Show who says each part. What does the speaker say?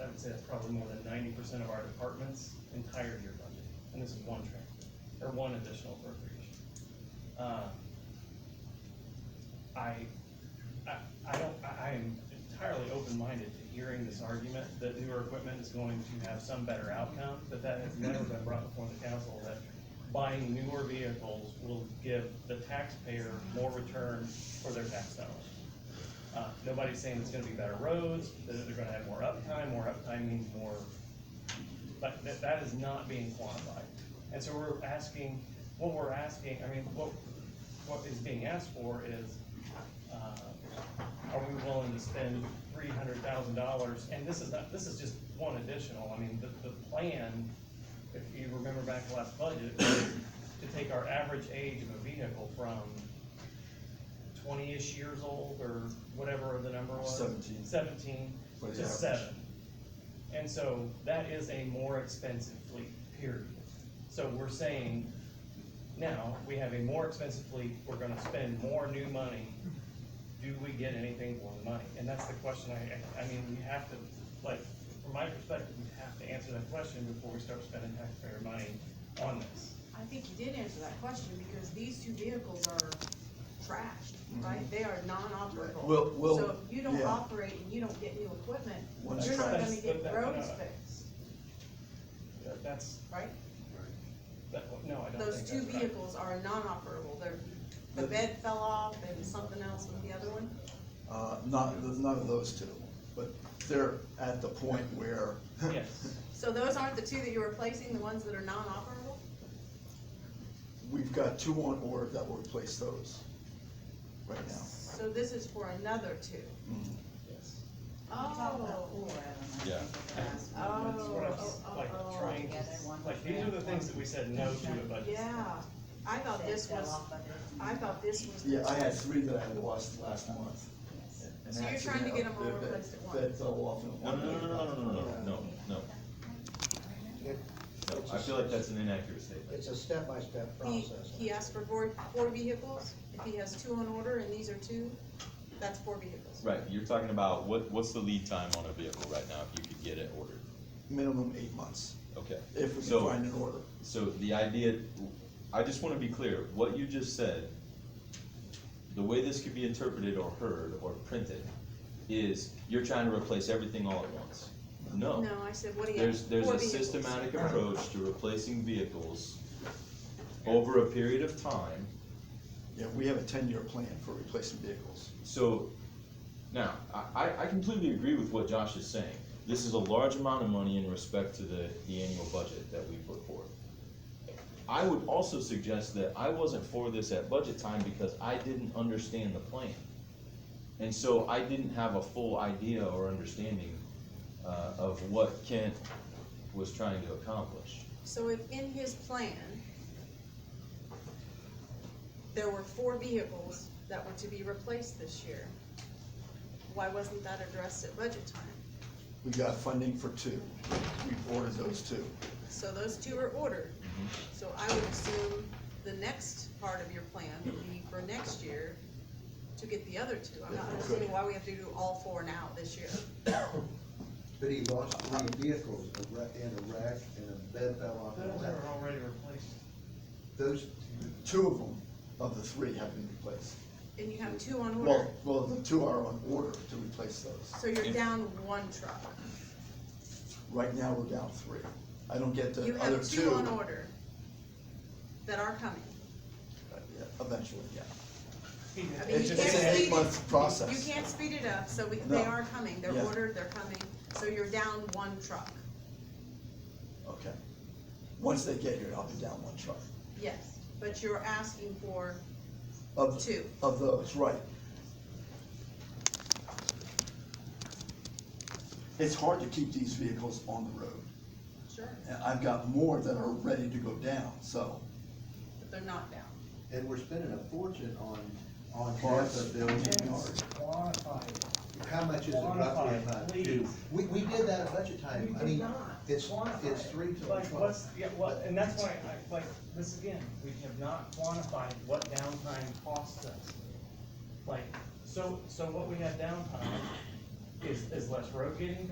Speaker 1: I'd say that's probably more than ninety percent of our department's entire year budget, and this is one transfer, or one additional appropriation. Um, I, I, I don't, I, I am entirely open-minded to hearing this argument that newer equipment is going to have some better outcome, but that has never been brought before the council, that buying newer vehicles will give the taxpayer more return for their tax dollars. Uh, nobody's saying it's gonna be better roads, that they're gonna have more uptime, more uptime means more, but that, that is not being quantified. And so we're asking, what we're asking, I mean, what, what is being asked for is, uh, are we willing to spend three hundred thousand dollars? And this is not, this is just one additional, I mean, the, the plan, if you remember back to last budget, was to take our average age of a vehicle from twenty-ish years old or whatever the number was.
Speaker 2: Seventeen.
Speaker 1: Seventeen
Speaker 2: But
Speaker 1: to
Speaker 2: yeah.
Speaker 1: seven. And so that is a more expensive fleet, period. So we're saying, now, we have a more expensive fleet, we're gonna spend more new money. Do we get anything for the money? And that's the question I, I mean, we have to, like, from my perspective, we have to answer that question before we start spending taxpayer money on this.
Speaker 3: I think you did answer that question, because these two vehicles are trashed, right? They are non-operable.
Speaker 2: Well- well,
Speaker 3: So if you don't
Speaker 2: yeah.
Speaker 3: operate and you don't get new equipment,
Speaker 2: One's
Speaker 3: you're not gonna
Speaker 1: trashed.
Speaker 3: get
Speaker 1: That's-
Speaker 3: roads
Speaker 1: that's-
Speaker 3: fixed,
Speaker 1: That- That's,
Speaker 3: right?
Speaker 1: that, no, I don't think
Speaker 3: Those two
Speaker 1: that's right.
Speaker 3: vehicles are non-operable, they're, the bed fell off and something else with the other one.
Speaker 2: Uh, not, none of those two, but they're at the point where.
Speaker 1: Yes.
Speaker 3: So those aren't the two that you're replacing, the ones that are non-operable?
Speaker 2: We've got two on order that will replace those right now.
Speaker 3: So this is for another two.
Speaker 2: Mhm.
Speaker 1: Yes.
Speaker 3: Oh.
Speaker 4: Yeah.
Speaker 3: Oh,
Speaker 1: That's what I was,
Speaker 3: oh, oh,
Speaker 1: like,
Speaker 3: oh.
Speaker 1: trying, to- like, these are the things that we said no to, but.
Speaker 3: Yeah, I thought this was, I thought this was. the
Speaker 2: Yeah, I had
Speaker 3: two.
Speaker 2: three that I had lost last month. and
Speaker 3: So you're trying to
Speaker 2: actually,
Speaker 3: get 'em all
Speaker 2: that- that-
Speaker 3: replaced at
Speaker 2: That
Speaker 3: once.
Speaker 2: fell off in
Speaker 4: No,
Speaker 2: one.
Speaker 4: no, no, no, no, no, no,
Speaker 2: Yeah.
Speaker 4: no, no, no. No, I feel like that's an inaccurate statement.
Speaker 5: It's a step-by-step
Speaker 3: He,
Speaker 5: process.
Speaker 3: he asked for four, four vehicles, if he has two on order and these are two, that's four vehicles.
Speaker 4: Right, you're talking about what, what's the lead time on a vehicle right now if you could get it ordered?
Speaker 2: Minimum eight months,
Speaker 4: Okay.
Speaker 2: if we can
Speaker 4: So-
Speaker 2: find an order.
Speaker 4: So the idea, I just wanna be clear, what you just said, the way this could be interpreted or heard or printed is you're trying to replace everything all at once. No.
Speaker 3: No, I said, what do you have?
Speaker 4: Oh. There's, there's
Speaker 3: Four
Speaker 4: a
Speaker 3: vehicles.
Speaker 4: systematic approach to replacing vehicles over a period of time.
Speaker 2: Yeah, we have a ten-year plan for replacing vehicles.
Speaker 4: So, now, I, I- I completely agree with what Josh is saying. This is a large amount of money in respect to the, the annual budget that we put forth. I would also suggest that I wasn't for this at budget time because I didn't understand the plan. And so I didn't have a full idea or understanding, uh, of what Kent was trying to accomplish.
Speaker 3: So if in his plan, there were four vehicles that were to be replaced this year, why wasn't that addressed at budget time?
Speaker 2: We got funding for two. We've ordered those two.
Speaker 3: So those two are ordered.
Speaker 4: Mm-hmm.
Speaker 3: So I would assume the next part of your plan would be for next year to get the other two. I'm not
Speaker 2: Yeah,
Speaker 3: understanding
Speaker 2: good.
Speaker 3: why we have to do all four now this year.
Speaker 5: But he lost three vehicles, a wreck, and a wreck, and a bed fell off. and a
Speaker 1: Those
Speaker 5: wreck.
Speaker 1: are already replaced.
Speaker 5: Those,
Speaker 2: Two of them, of the three, have been replaced.
Speaker 3: And you have two on order,
Speaker 2: Well, well, the two are on order to replace those.
Speaker 3: so you're down one truck.
Speaker 2: Right now, we're down three. I don't get
Speaker 3: You
Speaker 2: the other
Speaker 3: have
Speaker 2: two.
Speaker 3: two on order that are coming.
Speaker 2: Uh, yeah, Eventually, yeah.
Speaker 1: He-
Speaker 3: I mean,
Speaker 1: it
Speaker 3: you
Speaker 2: It's
Speaker 1: just-
Speaker 3: can't
Speaker 2: it's an
Speaker 3: speed it.
Speaker 2: eight-month process.
Speaker 3: You can't speed it up, so we-
Speaker 2: No.
Speaker 3: they are coming, they're
Speaker 2: Yeah.
Speaker 3: ordered, they're coming, so you're down one truck.
Speaker 2: Okay. Once they get here, I'll be down one truck.
Speaker 3: Yes, but you're asking for
Speaker 2: Of,
Speaker 3: Two.
Speaker 2: of those, right. It's hard to keep these vehicles on the road.
Speaker 3: Sure.
Speaker 2: And I've got more that are ready to go down, so.
Speaker 3: But they're not down.
Speaker 5: and we're spending a fortune on, on half
Speaker 2: Parts.
Speaker 5: a billion dollars.
Speaker 6: Quantify it.
Speaker 5: How much is it roughly
Speaker 1: Quantify,
Speaker 5: about?
Speaker 1: please.
Speaker 5: We, we did that at budget time. I
Speaker 6: We did
Speaker 5: mean,
Speaker 6: not.
Speaker 5: it's,
Speaker 6: Quantify
Speaker 5: it's
Speaker 6: it.
Speaker 5: three to
Speaker 1: Like,
Speaker 5: twelve.
Speaker 1: what's, yeah, what, and that's why, I, like, this again, we have not quantified what downtime costs us. Like, so, so what we have downtime is, is less road getting